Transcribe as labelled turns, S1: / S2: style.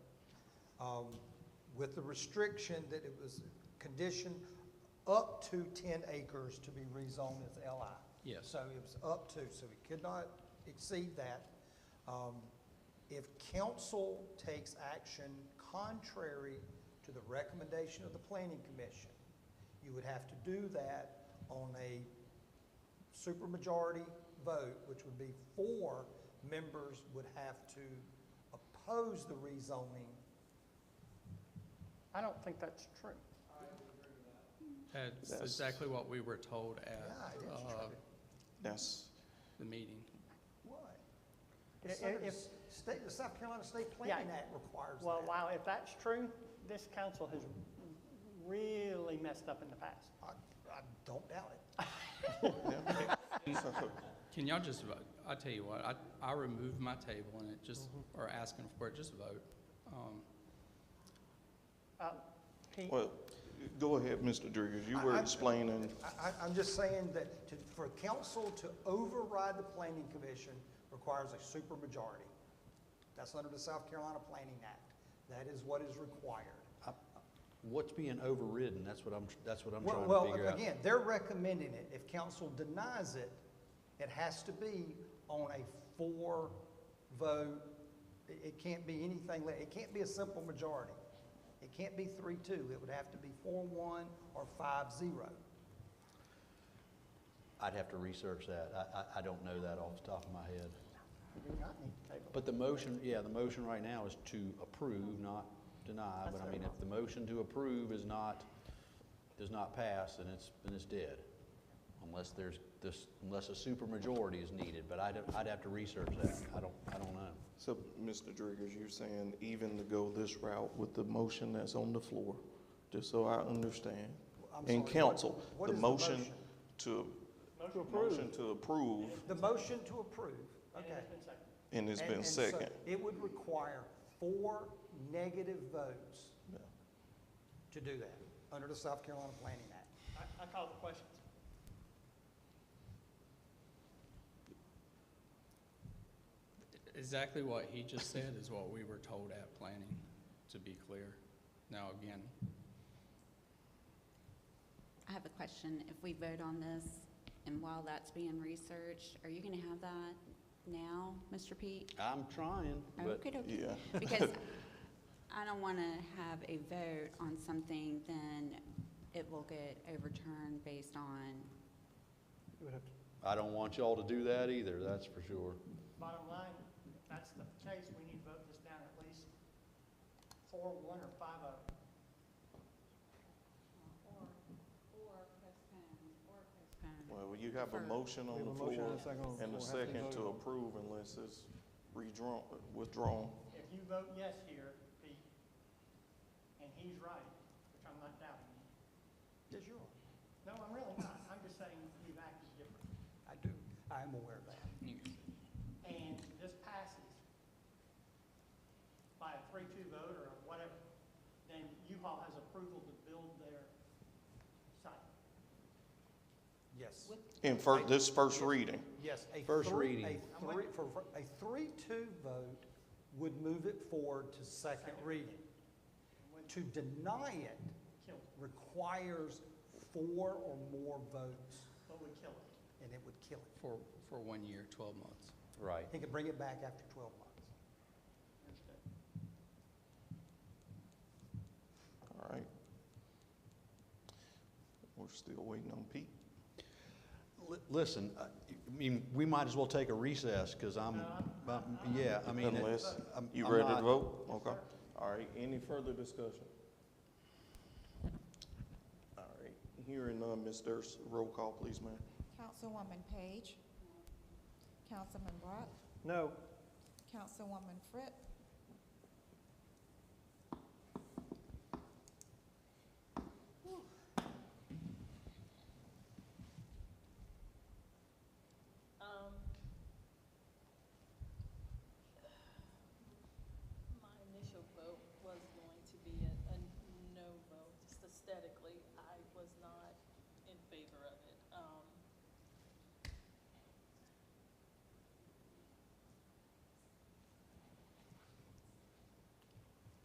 S1: um, with the restriction that it was conditioned up to ten acres to be rezoned as LI.
S2: Yes.
S1: So it was up to, so it could not exceed that. Um, If council takes action contrary to the recommendation of the planning commission, you would have to do that on a supermajority vote, which would be four members would have to oppose the rezoning.
S3: I don't think that's true.
S2: That's
S4: That's-
S2: exactly what we were told at
S1: Yeah, it is
S2: uh,
S1: true.
S4: That's,
S2: the meeting.
S1: Why?
S3: I-
S1: The Southern
S3: if-
S1: State, the South Carolina State Planning
S3: Yeah.
S1: Act requires that.
S3: Well, wow, if that's true, this council has really messed up in the past.
S1: I, I don't doubt it.
S4: yeah. So,
S2: Can y'all just vote? I tell you what, I, I removed my table and it just,
S1: Mm-hmm.
S2: or asking for it, just vote. Um,
S3: Uh, he-
S4: Well, go ahead, Mr. Driggers, you
S1: I-
S4: were
S1: I-
S4: explaining,
S1: I, I, I'm just saying that to, for council to override the planning commission requires a supermajority. That's under the South Carolina Planning Act. That is what is required.
S5: What's being overridden, that's what I'm, that's what I'm
S1: Well,
S5: trying to figure
S1: well,
S5: out.
S1: again, they're recommending it. If council denies it, it has to be on a four vote. It, it can't be anything, le- it can't be a simple majority. It can't be three, two. It would have to be four, one, or five, zero.
S5: I'd have to research that, I, I, I don't know that off the top of my head.
S3: You do not need to table.
S5: But the motion, yeah, the motion right now is to approve, not deny, but I mean, if the motion to approve is not, does not pass, then it's, then it's dead. Unless there's this, unless a supermajority is needed, but I'd, I'd have to research that, I don't, I don't know.
S4: so, Mr. Driggers, you're saying even to go this route with the motion that's on the floor, just so I understand.
S1: I'm sorry,
S4: And
S1: what-
S4: council,
S1: what
S4: the
S1: is
S4: motion to, motion to approve,
S1: The motion to approve, okay.
S4: and it's
S1: And-
S4: been
S1: and so
S4: second.
S1: It would require four negative votes to do that, under the South Carolina Planning Act.
S3: I, I call the questions.
S2: Exactly what he just said is what we were told at planning, to be clear. Now, again,
S6: I have a question. If we vote on this, and while that's being researched, are you gonna have that now, Mr. Pete?
S5: I'm trying, but
S6: Okay, okay.
S4: Yeah,
S6: Because I don't wanna have a vote on something, then it will get overturned based on,
S5: I don't want y'all to do that either, that's for sure.
S3: Bottom line, if that's the case, we need to vote this down at least four, one, or five of them.
S6: or, or postpone, or postpone.
S4: well, you have a motion on the floor and a second to approve unless it's redrawn, withdrawn.
S3: If you vote yes here, Pete, and he's right, which I'm not doubting you.
S1: Yes, you are.
S3: No, I'm really not. I'm just saying you've acted differently.
S1: I do, I am aware of that.
S3: and this passes by a three-two vote or whatever, then U-Haul has approval to build their site.
S1: Yes,
S4: In fir, this first reading,
S1: yes. a
S5: First
S1: three-
S5: reading.
S1: A three, for, a three-two vote would move it forward to second reading. To deny it
S3: Kill it,
S1: requires four or more votes,
S3: but would kill it.
S1: and it would kill it.
S2: for, for one year, 12 months.
S5: Right.
S1: He could bring it back after twelve months.
S3: Understood.
S4: all right. We're still waiting on Pete.
S5: Li- Listen, I I mean, we might as well take a recess, because I'm, um, yeah, I mean. it-
S4: Unless
S5: I'm-
S4: you
S5: I'm
S4: ready to
S5: not-
S4: vote? Okay. All right, any further discussion? All right, hearing none, Ms. Durst, roll call, please, ma'am.
S7: Councilwoman Page. Councilman Brock.
S1: No.
S7: Councilwoman Fritz.
S8: Um, my initial vote was going to be a, a no vote, just aesthetically. Um,